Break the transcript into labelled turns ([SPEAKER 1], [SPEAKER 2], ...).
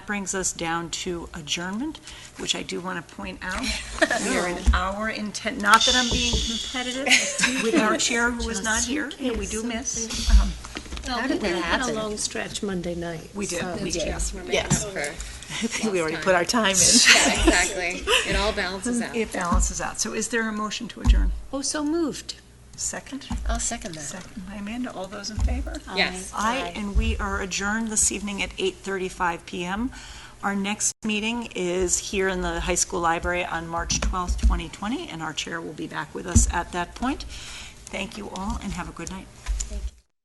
[SPEAKER 1] brings us down to adjournment, which I do want to point out. We are an hour intent, not that I'm being competitive with our chair who is not here, and we do miss. Um,
[SPEAKER 2] How did that happen? We had a long stretch Monday night.
[SPEAKER 1] We did,
[SPEAKER 2] so-
[SPEAKER 1] we did.
[SPEAKER 2] Yes, we're making
[SPEAKER 3] Yes.
[SPEAKER 2] up.
[SPEAKER 3] I
[SPEAKER 4] think we already put our time in.
[SPEAKER 3] Exactly. It all balances out.
[SPEAKER 1] It balances out. So is there a motion to adjourn?
[SPEAKER 2] Oh, so moved.
[SPEAKER 1] Second?
[SPEAKER 3] I'll second that.
[SPEAKER 1] Second by Amanda. All those in favor?
[SPEAKER 3] Yes.
[SPEAKER 1] Aye, and we are adjourned this evening at 8:35 PM. Our next meeting is here in the high school library on March 12th, 2020, and our chair will be back with us at that point. Thank you all, and have a good night.